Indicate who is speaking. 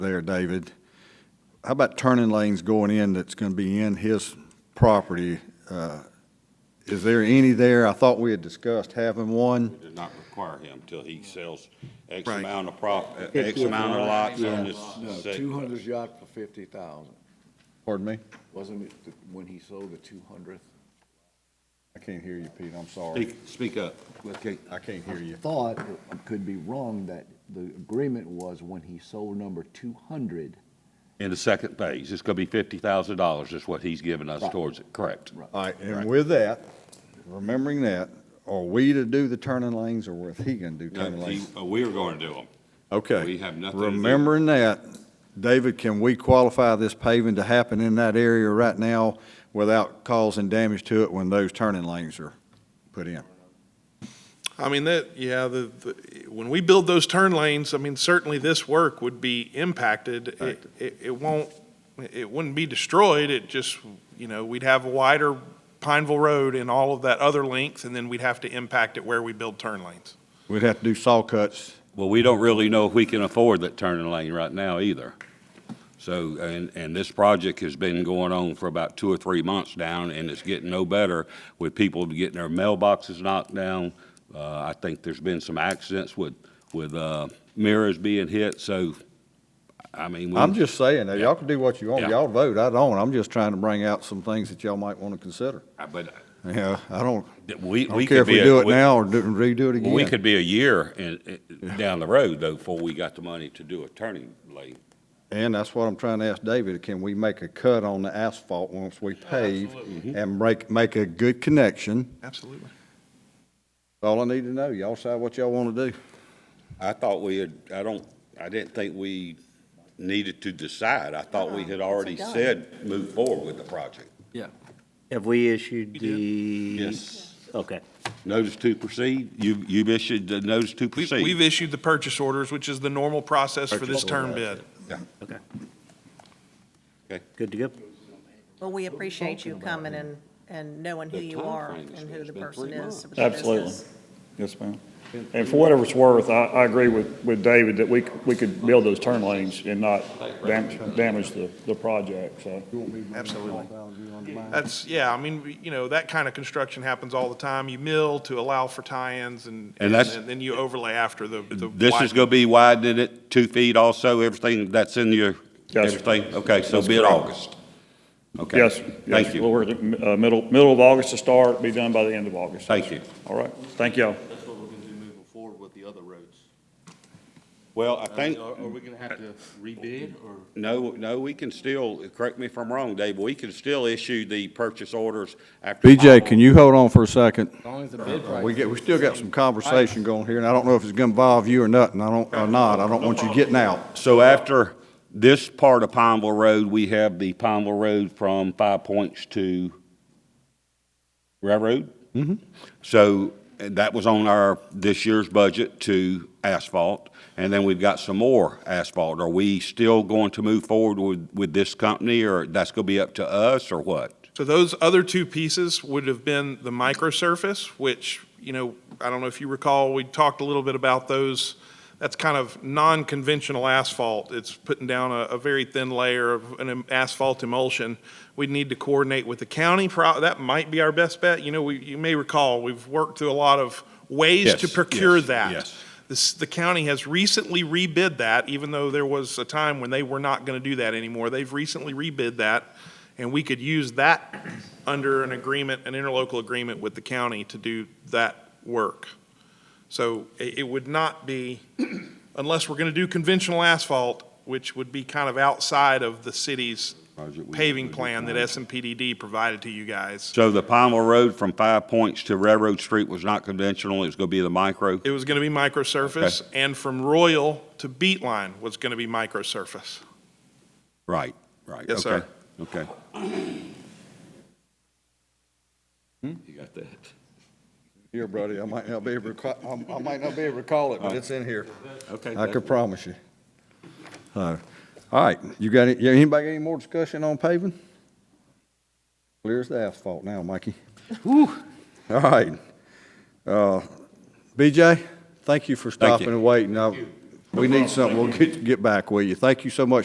Speaker 1: there, David. How about turning lanes going in that's going to be in his property? Uh, Is there any there? I thought we had discussed having one.
Speaker 2: It does not require him till he sells X
Speaker 1: Right.
Speaker 2: amount of prop, X amount of lots on this. sec-
Speaker 3: Two hundredth yacht for fifty thousand,
Speaker 1: Pardon me?
Speaker 3: wasn't it the- when he sold the two hundredth?
Speaker 1: I can't hear you, Pete. I'm sorry.
Speaker 2: Speak, speak up.
Speaker 3: Okay.
Speaker 1: I can't hear you.
Speaker 3: Thought, I could be wrong, that the agreement was when he sold number two hundred.
Speaker 2: In the second phase, it's gonna be fifty thousand dollars is what he's giving us
Speaker 3: Right.
Speaker 2: towards it, correct?
Speaker 3: Right.
Speaker 1: All right, and with that, remembering that, are we to do the turning lanes or is he going to do
Speaker 2: No,
Speaker 1: turning
Speaker 2: he-
Speaker 1: lanes?
Speaker 2: uh, We're gonna do them.
Speaker 1: Okay.
Speaker 2: We have nothing to do.
Speaker 1: Remembering that, David, can we qualify this paving to happen in that area right now without causing damage to it when those turning lanes are put in?
Speaker 4: I mean, that, yeah, the, the, when we build those turn lanes, I mean, certainly this work would be impacted. It, it, it won't, it wouldn't be destroyed, it just, you know, we'd have a wider Pineville Road and all of that other length, and then we'd have to impact it where we build turn lanes.
Speaker 1: We'd have to do saw cuts.
Speaker 2: Well, we don't really know if we can afford that turning lane right now either. So, and, and this project has been going on for about two or three months now, and it's getting no better with people getting their mailboxes knocked down. Uh, I think there's been some accidents with, with, uh, mirrors being hit, so, I mean. we-
Speaker 1: I'm just saying, now, y'all can do what you want.
Speaker 2: Yeah.
Speaker 1: Y'all vote, I don't. I'm just trying to bring out some things that y'all might want to consider.
Speaker 2: But uh,
Speaker 1: Yeah, I don't,
Speaker 2: we, we
Speaker 1: I don't
Speaker 2: could be.
Speaker 1: care if we
Speaker 2: a-
Speaker 1: do it now or do- redo it
Speaker 2: Well, we
Speaker 1: again.
Speaker 2: could be a year in, in- down the road though, before we got the money to do a turning lane.
Speaker 1: And that's what I'm trying to ask David, can we make a cut on the asphalt once we pave and make, make a good connection?
Speaker 4: Absolutely.
Speaker 1: All I need to know, y'all decide what y'all want to do.
Speaker 2: I thought we had, I don't, I didn't think we needed to decide. I thought we had already
Speaker 5: it's a done.
Speaker 2: said move forward with the project.
Speaker 6: Have we issued the? Okay.
Speaker 2: Notice to proceed? You, you've issued the notice to
Speaker 4: We've,
Speaker 2: proceed?
Speaker 4: we've issued the purchase orders, which is the normal process for this turn bid.
Speaker 6: Okay.
Speaker 2: Okay.
Speaker 6: Good to go.
Speaker 5: Well, we appreciate you coming and, and knowing who
Speaker 2: The
Speaker 5: you are
Speaker 2: timeframe is
Speaker 5: and who
Speaker 2: it's
Speaker 5: the
Speaker 2: been
Speaker 5: person
Speaker 2: three
Speaker 5: is. with the
Speaker 7: Absolutely.
Speaker 5: business.
Speaker 7: Yes, ma'am. And for whatever it's worth, I, I agree with, with David that we, c- we could build those turn lanes and not damage, damage the, the project, so.
Speaker 4: Absolutely. That's, yeah, I mean, we- you know, that kind of construction happens all the time. You mill to allow for tie-ins and,
Speaker 2: And
Speaker 4: and
Speaker 2: that's-
Speaker 4: then you overlay after the. the
Speaker 2: This is
Speaker 4: wide-
Speaker 2: gonna be widening it two feet also, everything that's in your,
Speaker 7: Yes, sir.
Speaker 2: everything? Okay, so
Speaker 7: That's
Speaker 2: bid
Speaker 7: correct.
Speaker 2: August. Okay.
Speaker 7: Yes, yes.
Speaker 2: Thank
Speaker 7: Well,
Speaker 2: you.
Speaker 7: we're, uh, middle, middle of August to start, be done by the end of August.
Speaker 2: Thank you.
Speaker 7: All right, thank y'all.
Speaker 8: That's what we're gonna do moving forward with the other roads.
Speaker 2: Well, I
Speaker 8: I
Speaker 2: think.
Speaker 8: mean, Are, are we gonna have to rebid or?
Speaker 2: No, no, we can still, correct me if I'm wrong, Dave, we can still issue the purchase orders after.
Speaker 1: BJ, can you hold on for a second?
Speaker 8: As long as the bid price.
Speaker 1: We get, we still got some conversation going here, and I don't know if it's gonna involve you or nothing, I don't, or not, I don't want you getting out.
Speaker 2: So after this part of Pineville Road, we have the Pineville Road from Five Points to Railroad? Mm-hmm. So uh, that was on our, this year's budget to asphalt, and then we've got some more asphalt. Are we still going to move forward with, with this company, or that's gonna be up to us, or what?
Speaker 4: So those other two pieces would have been the microsurface, which, you know, I don't know if you recall, we talked a little bit about those. That's kind of non-conventional asphalt. It's putting down a, a very thin layer of an em- asphalt emulsion. We'd need to coordinate with the county. pro- That might be our best bet. You know, we, you may recall, we've worked through a lot of ways
Speaker 2: Yes,
Speaker 4: to procure
Speaker 2: yes,
Speaker 4: that.
Speaker 2: yes.
Speaker 4: This, the county has recently rebid that, even though there was a time when they were not going to do that anymore. They've recently rebid that, and we could use that under an agreement, an interlocal agreement with the county to do that work. So it, it would not be, unless we're going to do conventional asphalt, which would be kind of outside of the city's paving plan that SMPDD provided to you guys.
Speaker 2: So the Pineville Road from Five Points to Railroad Street was not conventional, it was gonna be the micro?
Speaker 4: It was going to be microsurface, and from Royal to Beatline was going to be microsurface.
Speaker 2: Right, right.
Speaker 4: Yes,
Speaker 2: okay,
Speaker 4: sir.
Speaker 2: Okay. Hmm?
Speaker 8: You got that.
Speaker 1: Here, buddy, I might not be able to, ca- I I might not be able to call it, but it's in here.
Speaker 2: Okay.
Speaker 1: I could promise you. Uh, All right, you got, any- yeah, anybody got any more discussion on paving? Clear as the asphalt now, Mikey. All right. Uh, BJ, thank you for
Speaker 2: Thank you.
Speaker 1: stopping and waiting. I We need something, we'll get, get back with you. Thank you so much